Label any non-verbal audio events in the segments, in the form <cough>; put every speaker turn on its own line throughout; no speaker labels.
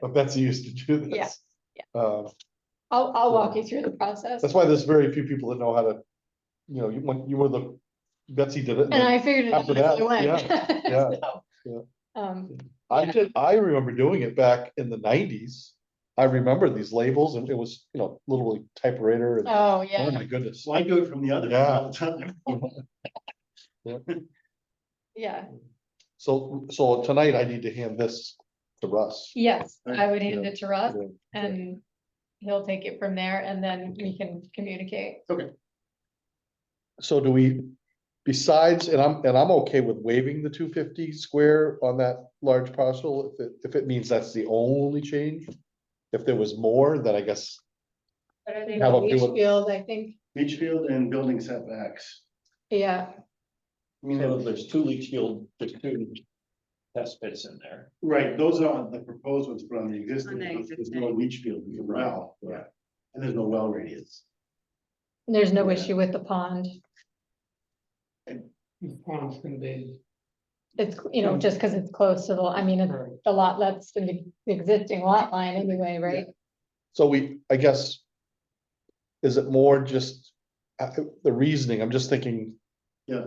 but Betsy used to do this.
Yeah,
Uh,
I'll, I'll walk you through the process.
that's why there's very few people that know how to, you know, you, when you were the, Betsy did it.
And I figured it out
After
as I
that,
went.
yeah.
<laughs> So, Um,
I did, I remember doing it back in the nineties. I remember these labels and it was, you know, literally typewriter and,
oh,
oh
yeah,
my goodness.
So I do it from the other.
Yeah.
all the time.
yeah,
So, so tonight I need to hand this to Russ.
yes,
Right,
I would hand it to Russ
Yeah,
and he'll take it from there and then we can communicate.
So do we, besides, and I'm, and I'm okay with waiving the two fifty square on that large parcel, if it, if it means that's the only change. If there was more, then I guess,
But I think
How about
on each
people-
field, I think,
Leach field and building setbacks.
yeah,
I mean,
So there's two leach field, there's two test pits in there.
Right, those are the proposed ones, but on the existing,
On the
there's there's no leach field, there's a well, yeah,
Right.
and there's no well radius.
there's no
Yeah.
issue with the pond.
Pond's gonna be.
It's, you know, just because it's close to the, I mean, it's the lot, that's the existing lot line anyway, right?
so we, I guess. Is it more just, uh, the reasoning, I'm just thinking,
Yeah,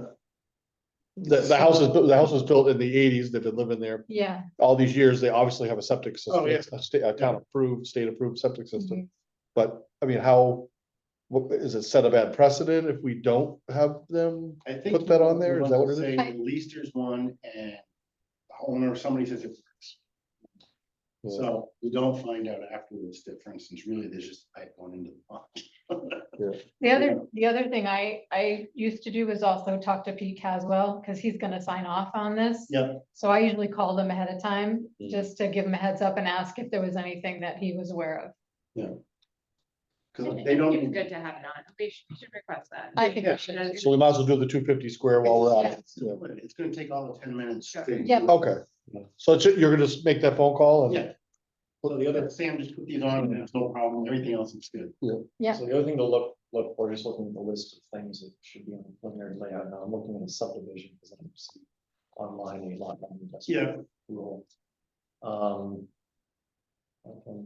the, the house is, the house was built in the eighties, they've been living there
Yeah.
all these years, they obviously have a septic
Oh,
system,
yeah.
it's a sta- a town approved, state approved septic system.
mhm.
But, I mean, how, what, is it set a bad precedent if we don't have them?
I think.
Put that on there,
you
is
want
that
to
what
say
it
At least there's one and the owner, somebody says it works. So we don't find out afterwards that, for instance, really there's just a pipe going into the pond.
The other, the other thing I, I used to do was also talk to Pete Caswell, because he's gonna sign off on this.
Yeah.
So I usually called him ahead of time,
Mm.
just to give him a heads up and ask if there was anything that he was aware of.
Cause
I
they
think
don't,
It's good to have it on. We should, we should request that.
I think
Yeah.
we should,
So we might as well do the two fifty square while we're at it. Yeah.
it's gonna take all the ten minutes.
Sure.
to-
Yeah.
Okay, so it's- you're gonna just make that phone call and?
Yeah. Well, the other, Sam, just put these on and that's no problem, everything else is good.
Yeah.
So the other thing to look, look, we're just looking at the list of things that should be on the preliminary layout. Now I'm looking at the subdivision because I'm seeing online a lot. on the
Yeah.
rule. Um. okay,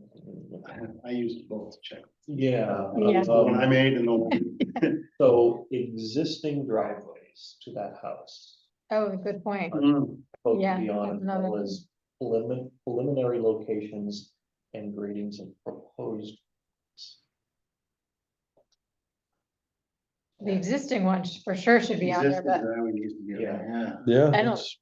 I- I used both to check.
Yeah.
Yeah.
The one I
um,
made and the one.
<laughs>
So existing driveways to that house.
oh, good point,
Mm,
both
Yeah,
beyond
that's another-
was prelimin- preliminary locations and gradings of proposed.
the existing one sh- for sure should be on there,
existing
but
driveway needs to be on there,
Yeah.
I don't-
it's-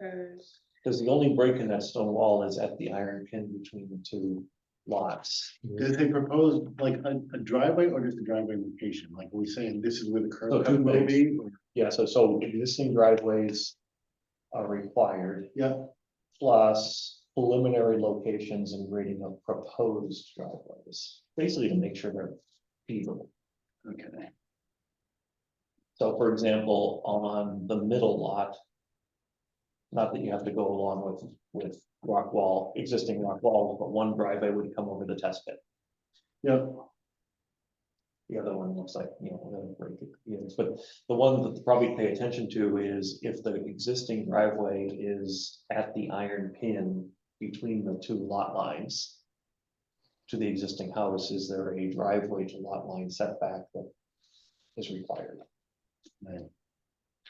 There's-
Because the only break in that stone wall is at the iron pin between the two lots.
yeah. Does they propose like a, a driveway or just a driveway location? Like, are we saying this is where the
So
curb
two
cut will
ways.
be?
Yeah, so so existing driveways are required
Yeah,
plus preliminary locations and grading of proposed driveways. Basically to make sure they're feasible.
okay.
So for example, on the middle lot. Not that you have to go along with, with rock wall, existing rock wall, but one driveway would come over the test pit.
Yeah,
The other one looks like, you know, we're gonna break it, you know, but the one that to probably pay attention to is if the existing driveway is at the iron pin. Between the two lot lines. To the existing house, is there a driveway to lot line setback that is required?
Right.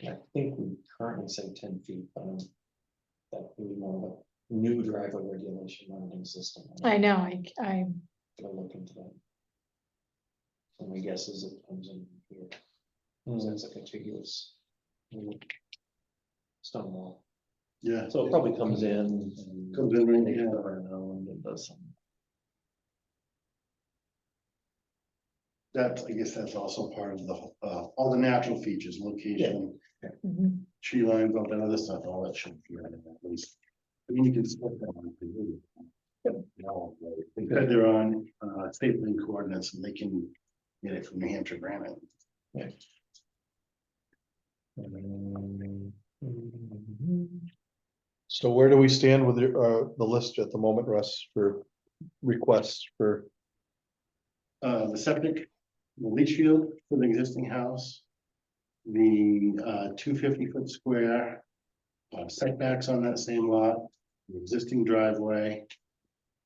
And I think we currently say ten feet, but um, that would be more of a new driveway regulation than an existing. one
I know, I, I,
to look into that. So my guess is it comes in here,
Hmm.
because that's a contiguous. mm, Stone wall,
yeah.
so it probably comes in. and
Comes in right
makes
here.
it around and does some-
That, I guess that's also part of the, uh, all the natural features, location,
mhm.
tree lines, all that other stuff, all that should be on it at least. I mean, you can split that one. if you really want. They said they're on, uh, state link coordinates and they can get it from New Hampshire granite.
Mm,
Hmm.
mm,
So where do we stand with the, uh, the list at the moment, Russ, for requests for,
Uh, the septic, the leach field for the existing house. The, uh, two fifty foot square. uh, Setbacks on that same lot, the existing driveway.